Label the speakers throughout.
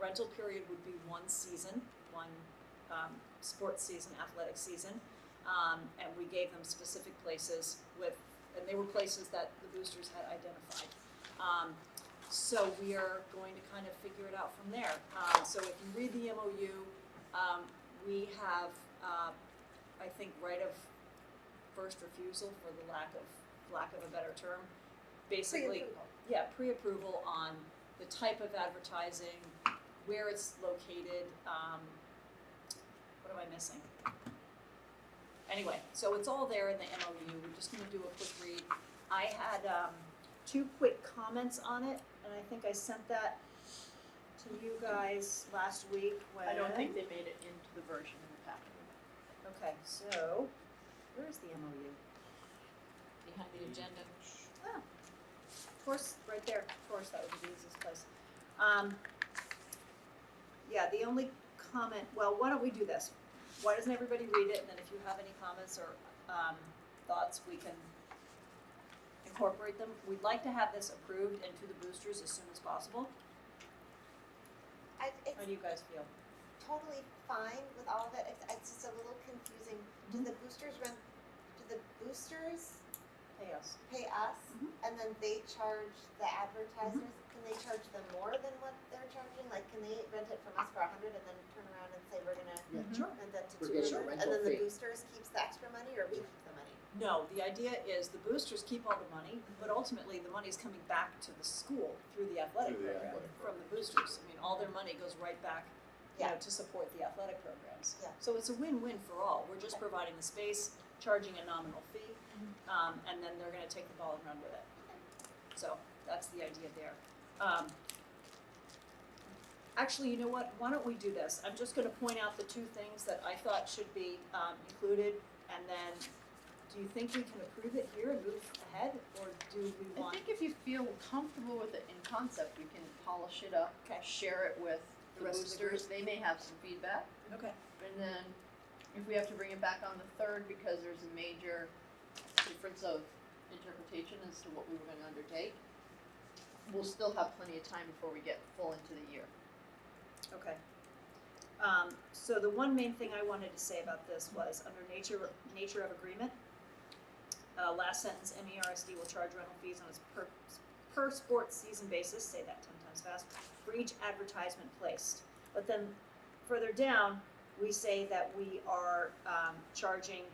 Speaker 1: rental period would be one season, one um, sports season, athletic season. Um, and we gave them specific places with, and they were places that the boosters had identified. Um, so we are going to kind of figure it out from there. Um, so if you read the MOU, um, we have, uh, I think, right of first refusal for the lack of, lack of a better term. Basically,
Speaker 2: Pre-approval.
Speaker 1: yeah, pre-approval on the type of advertising, where it's located, um, what am I missing? Anyway, so it's all there in the MOU, we're just gonna do a quick read. I had, um, two quick comments on it, and I think I sent that to you guys last week when.
Speaker 3: I don't think they made it into the version in the packet.
Speaker 1: Okay, so, where is the MOU?
Speaker 4: behind the agenda.
Speaker 1: Of course, right there, of course, that would be the easiest place. Um, yeah, the only comment, well, why don't we do this? Why doesn't everybody read it, and then if you have any comments or, um, thoughts, we can incorporate them. We'd like to have this approved and to the boosters as soon as possible.
Speaker 2: I,
Speaker 1: How
Speaker 2: it's
Speaker 1: do you guys feel?
Speaker 2: totally fine with all of it, it's, it's just a little confusing, do the boosters run, do the boosters
Speaker 1: Hey, us.
Speaker 2: pay us?
Speaker 1: Mhm.
Speaker 2: And then they charge the advertisers, can they charge them more than what they're charging, like, can they rent it from us for a hundred and then turn around and say, we're gonna
Speaker 5: Yeah.
Speaker 1: Sure.
Speaker 2: rent that to
Speaker 5: We're
Speaker 2: two
Speaker 5: getting a
Speaker 2: hundred?
Speaker 5: rental
Speaker 2: And then the
Speaker 5: fee.
Speaker 2: boosters keeps the extra money, or we keep the money?
Speaker 1: No, the idea is the boosters keep all the money, but ultimately the money is coming back to the school through the athletic
Speaker 5: Through the
Speaker 1: program
Speaker 5: athletic
Speaker 1: from the boosters. I mean, all their money goes right back, you know,
Speaker 2: Yeah.
Speaker 1: to support the athletic programs.
Speaker 2: Yeah.
Speaker 1: So it's a win-win for all. We're just providing the space, charging a nominal fee, um, and then they're gonna take the ball and run with it. So that's the idea there. Um, actually, you know what? Why don't we do this? I'm just gonna point out the two things that I thought should be, um, included and then, do you think we can approve it here and move ahead, or do we
Speaker 3: I
Speaker 1: want?
Speaker 3: think if you feel comfortable with it in concept, we can polish it up,
Speaker 1: Okay.
Speaker 3: share it with
Speaker 1: The
Speaker 3: the
Speaker 1: rest of the group.
Speaker 3: boosters, they may have some feedback.
Speaker 1: Okay.
Speaker 3: And then if we have to bring it back on the third because there's a major difference of interpretation as to what we were gonna undertake, we'll still have plenty of time before we get full into the year.
Speaker 1: Okay. Um, so the one main thing I wanted to say about this was under nature, nature of agreement, uh, last sentence, MERSD will charge rental fees on its per, per sports season basis, say that ten times fast, for each advertisement placed. But then further down, we say that we are, um, charging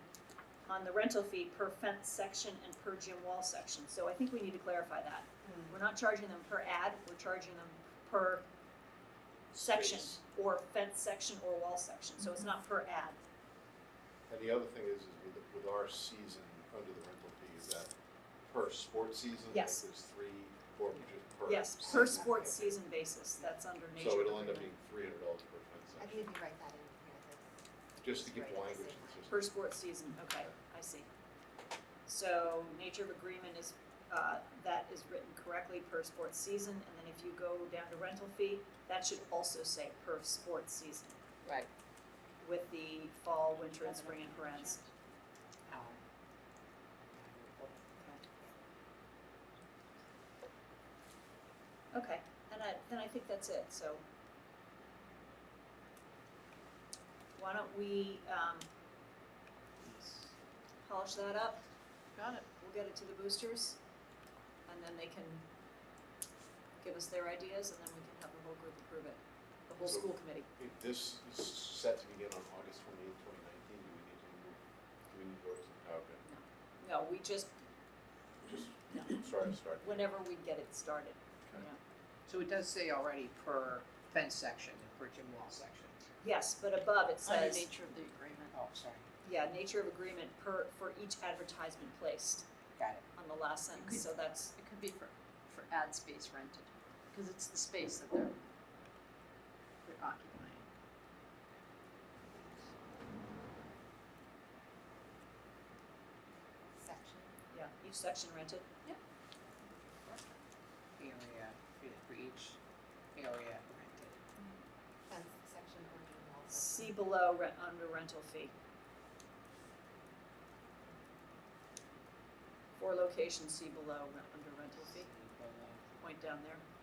Speaker 1: on the rental fee per fence section and per gym wall section. So I think we need to clarify that.
Speaker 5: Hmm.
Speaker 1: We're not charging them per ad, we're charging them per section
Speaker 5: Space.
Speaker 1: or fence section or wall section, so
Speaker 5: Mm-hmm.
Speaker 1: it's not per ad.
Speaker 5: And the other thing is, is with, with our season under the rental fee, is that per sports season, like
Speaker 1: Yes.
Speaker 5: there's three, or just per.
Speaker 1: Yes, per
Speaker 5: season?
Speaker 1: sports season basis, that's under nature.
Speaker 5: So
Speaker 1: of
Speaker 5: it'll end up
Speaker 1: agreement.
Speaker 5: being three hundred dollars per
Speaker 2: I
Speaker 5: transaction,
Speaker 2: think if you write that in here, that's,
Speaker 5: just to give
Speaker 2: Right.
Speaker 5: language consistent.
Speaker 1: Per sports season, okay, I see. So nature of agreement is, uh, that is written correctly per sports season, and then if you go down to rental fee, that should also say per sports season.
Speaker 4: Right.
Speaker 1: With the fall, winter, and spring in parentheses. Okay, and I, then I think that's it, so. Why don't we, um, polish that up,
Speaker 3: Got it.
Speaker 1: we'll get it to the boosters, and then they can give us their ideas, and then we can have the whole group approve it, the whole
Speaker 5: So-
Speaker 1: school committee.
Speaker 5: If this is set to begin on August twenty-eighth, twenty nineteen, do we need to, move- do we need to go to, okay,
Speaker 1: No, we just,
Speaker 5: just,
Speaker 1: No.
Speaker 5: sorry to start.
Speaker 1: whenever we get it started, you
Speaker 5: Okay.
Speaker 1: know.
Speaker 6: So it does say already per fence section and per gym wall section.
Speaker 1: Yes, but above it
Speaker 3: Under
Speaker 1: says,
Speaker 3: nature of the agreement.
Speaker 6: Oh, sorry,
Speaker 1: yeah, nature of agreement per, for each advertisement placed
Speaker 6: got it.
Speaker 1: on the last sentence, so that's,
Speaker 3: It could be for, for ad space rented, because it's the space that they're, they're occupying.
Speaker 2: section.
Speaker 1: yeah, each section rented.
Speaker 6: Area, yeah, for each area rented.
Speaker 2: fence section or gym wall section.
Speaker 1: See below rent, under rental fee. For locations, see below rent, under rental fee, point down there.